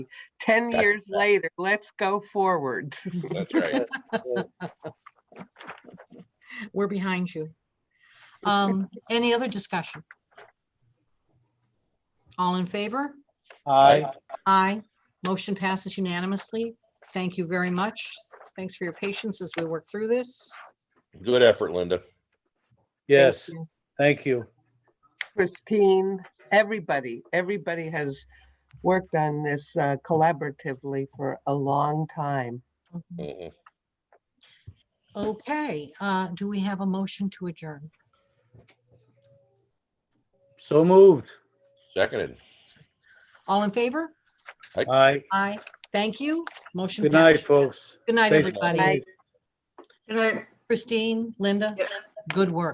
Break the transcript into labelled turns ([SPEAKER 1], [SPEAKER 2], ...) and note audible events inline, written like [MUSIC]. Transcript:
[SPEAKER 1] 10
[SPEAKER 2] That's
[SPEAKER 1] years later, let's go forward. [LAUGHS]
[SPEAKER 2] That's right.
[SPEAKER 3] We're behind you. Um, any other discussion? All in favor?
[SPEAKER 4] Aye.
[SPEAKER 3] Aye. Motion passes unanimously. Thank you very much. Thanks for your patience as we work through this.
[SPEAKER 2] Good effort, Linda.
[SPEAKER 3] Thank
[SPEAKER 4] Yes,
[SPEAKER 3] you.
[SPEAKER 4] thank you.
[SPEAKER 1] Christine, everybody, everybody has worked on this uh, collaboratively for a long time.
[SPEAKER 3] Mhm.
[SPEAKER 2] Mhm.
[SPEAKER 3] Okay, uh, do we have a motion to adjourn?
[SPEAKER 4] So moved.
[SPEAKER 2] Seconded.
[SPEAKER 3] All in favor?
[SPEAKER 4] Aye.
[SPEAKER 3] Aye. Thank you. Motion.
[SPEAKER 4] Good
[SPEAKER 3] passed.
[SPEAKER 4] night, folks.
[SPEAKER 3] Good night,
[SPEAKER 4] Thanks.
[SPEAKER 3] everybody.
[SPEAKER 1] Bye.
[SPEAKER 3] Christine, Linda, good work.